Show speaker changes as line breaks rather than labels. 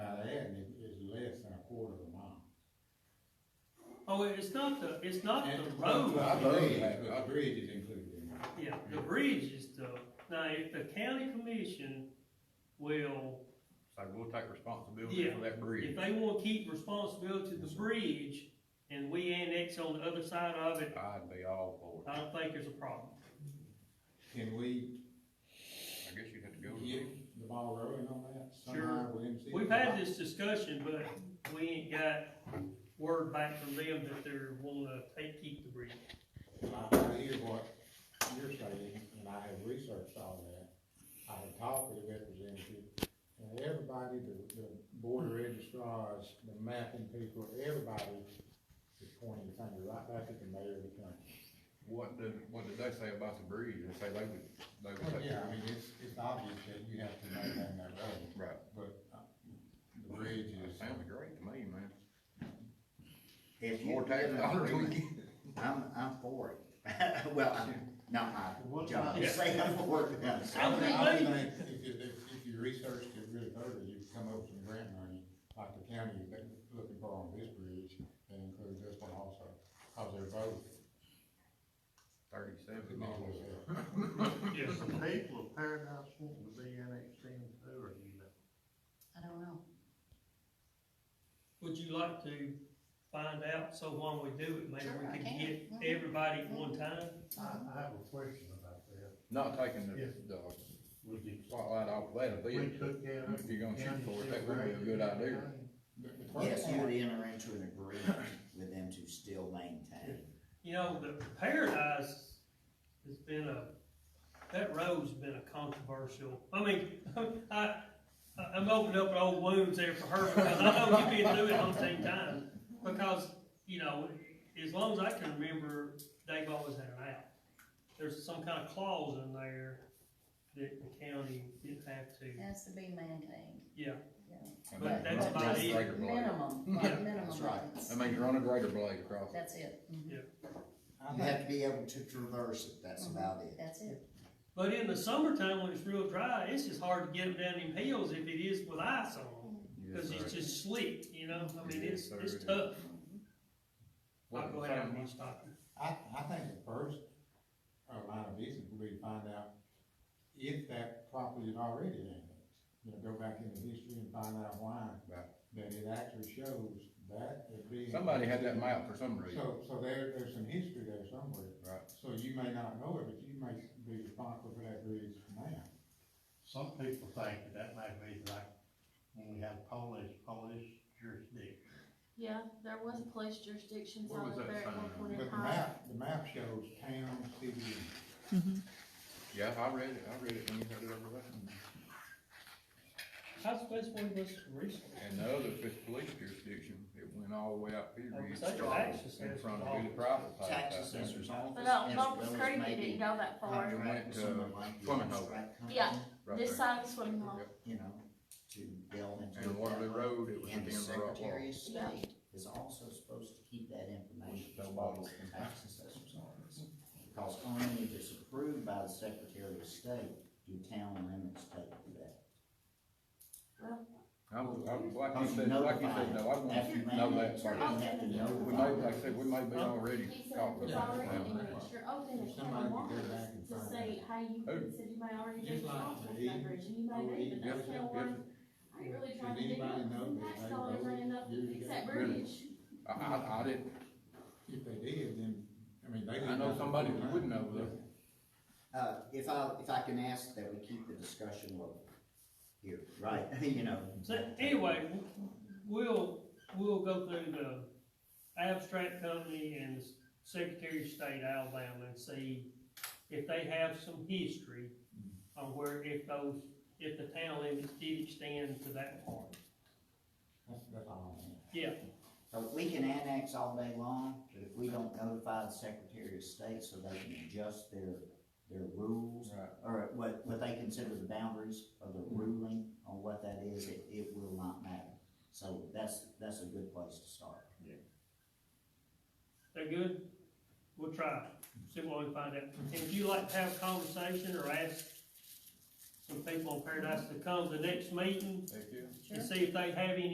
No, Oh, it's not the, it's not the
And-
road,
I believe, I
Our bridge is included in that.
yeah, the bridge is the, now, if the county commission will,
So we'll take responsibility
Yeah.
for that bridge.
if they wanna keep responsibility to the bridge, and we annex on the other side of it,
I'd be all for
I
it.
don't think there's a problem.
Can we
I guess you'd have to go. to the-
get the ball rolling on that somehow
Sure.
with MCD?
We've had this discussion, but we ain't got word back from them that they're wanna take, keep the bridge.
I, I hear what you're saying, and I have researched all that. I have talked with the representative, and everybody, the, the board of registrars, the mapping people, everybody is pointing the finger right back at the mayor of the county.
What did, what did they say about the bridge? They say they would, they would take.
Yeah, I mean, it's, it's obvious that you have to maintain that road,
Right.
but uh, the bridge
It
is.
sounds great to me, man.
If you-
More tax
if I
dollars we
agree,
get.
I'm, I'm for it. Well, I'm, not my job to say I'm for it, but I'm
I
saying
would think,
think
I would
we-
think if you, if, if you researched it really thoroughly, you could come up with some grant money, like the county is looking for on this bridge, that includes this one also, cause they're both.
Thirty-seven dollars.
Well,
Is the people of Paradise wanting to be annexed in too, or you know?
I don't know.
Would you like to find out, so while we do it, maybe
Sure,
we
I can. Mm-hmm.
can get
Mhm.
everybody at one time?
I, I have a question about that.
Not taking the,
Yeah.
the
Would you,
spotlight off that,
we
bit.
took down.
If you're Oh, gonna shoot
County
for it, that would
Civil
be a
Rights
good
and
idea.
everything.
Yes, you would enter into an agreement with them to still maintain.
You know, the Paradise has been a, that road's been a controversial, I mean, I, I- I'm opening up old wounds there for her, because I know you've been doing it all the same time. Because, you know, as long as I can remember, they've always had an out. There's some kind of clause in there that the county didn't have to,
It has to be maintained.
yeah,
And
But
that-
that's
that's
about
just
it.
greater blade.
Minimum, like minimum
That's right.
maintenance.
That means you're on a greater blade across. it.
That's it. Mhm.
You have to be able to traverse it, that's
Mm-hmm.
about it.
That's it.
But in the summertime, when it's real dry, it's just hard to get up down them hills if it is with ice on,
Yes,
because
sir.
it's just slick, you know, I mean, it's,
Yes,
it's
sir.
tough.
What
I'll go
was
ahead
that?
and stop.
I, I think the first, uh, line of business would be to find out if that property is already annexed. You know, go back into history and find out why,
Right.
that it actually shows that it being.
Somebody had that map for some reason,
So, so there, there's some history there somewhere.
right?
So you may not know it, but you may be responsible for that bridge now.
Some people think that that might be like when we had Polish, Polish jurisdiction.
Yeah, there was a police jurisdiction
What was
sign
that
up there at
sign
one
on?
point
But
in
the
time.
map, the map shows town, city, and-
Yeah, I read it, I read it when you had it over there.
How's the best one was recent?
And the other, if it's police jurisdiction, it went all the way out here,
Like,
it
such a
started
access
in
is
front of who the
all-
private pay.
Tax uh, assessor's
But uh,
office.
no,
as
Bumpus
well as
Creek, it
maybe
didn't go that far.
contract with
Went, uh,
someone like the
Fleming Hole.
abstract company,
Yeah,
Right
this
there.
side is swimming hole.
Yep.
You know, to delve into.
And
it
Waterloo
that way.
Road, it was
And the
against the rock wall.
Secretary of
Yeah.
State is also supposed to keep that information as well as the tax assessor's office. Because only if it's approved by the Secretary of State do town limits take that.
I was, I was, like you
Because
said, like you said, no, I want
After
to
you
know
manage,
that
You
part.
have to
We may, like
notify.
I said, we may be already
He said
caught
it
with
was
that.
already in
now.
it. You're open to
Somebody
county
could go
waters
back and
to
find
say, hey, you
Who?
said you may already
Just like
be responsible for
me.
that bridge, and you may be, but that's
Yes,
still
yes.
one. I ain't really
Did
trying to do
anybody
it,
know
some
that
tax
they
dollars
voted
ain't enough to
years ago?
fix that
Really?
bridge.
I, I, I didn't,
if they did, then, I mean, they.
I know somebody who would know that.
Uh, if I, if I can ask that we keep the discussion local here, right, you know.
So, anyway, w- we'll, we'll go through the abstract company and Secretary of State Alabama and see if they have some history on where, if those, if the town limits did extend to that part.
That's, that's all. I have.
Yeah,
Um, Uh, we can annex all day long, but if we don't notify the Secretary of State so they can adjust their, their rules,
Right.
or what, what they consider the boundaries of the ruling on what that is, it, it will not matter. So that's, that's a good place to start.
they're good? We'll try, see what we can find out. And if you like to have a conversation or ask some people on Paradise to come to the next meeting
Thank you.
Sure.
and see if they have any